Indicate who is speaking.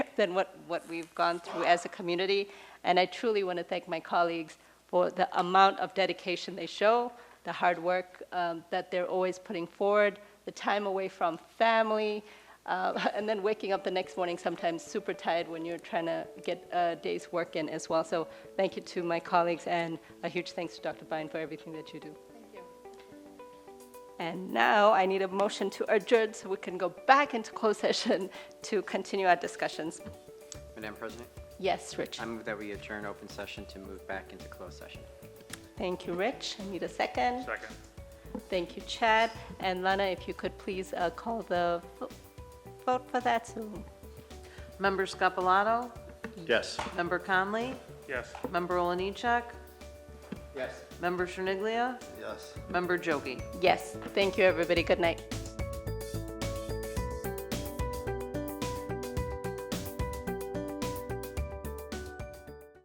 Speaker 1: than what, what we've gone through as a community. And I truly want to thank my colleagues for the amount of dedication they show, the hard work um, that they're always putting forward, the time away from family, uh, and then waking up the next morning sometimes super tired when you're trying to get a day's work in as well. So thank you to my colleagues, and a huge thanks to Dr. Byrne for everything that you do. And now I need a motion to adjourn so we can go back into closed session to continue our discussions.
Speaker 2: Madam President,
Speaker 1: Yes, Rich.
Speaker 2: I move that we adjourn open session to move back into closed session.
Speaker 1: Thank you, Rich. I need a second.
Speaker 3: Second.
Speaker 1: Thank you, Chad. And Lana, if you could please uh, call the vo- vote for that soon.
Speaker 4: Member Scapalato?
Speaker 3: Yes.
Speaker 4: Member Conley?
Speaker 3: Yes.
Speaker 4: Member Oliniechek?
Speaker 2: Yes.
Speaker 4: Member Cherniglia?
Speaker 2: Yes.
Speaker 4: Member Jogi?
Speaker 1: Yes, thank you, everybody. Good night.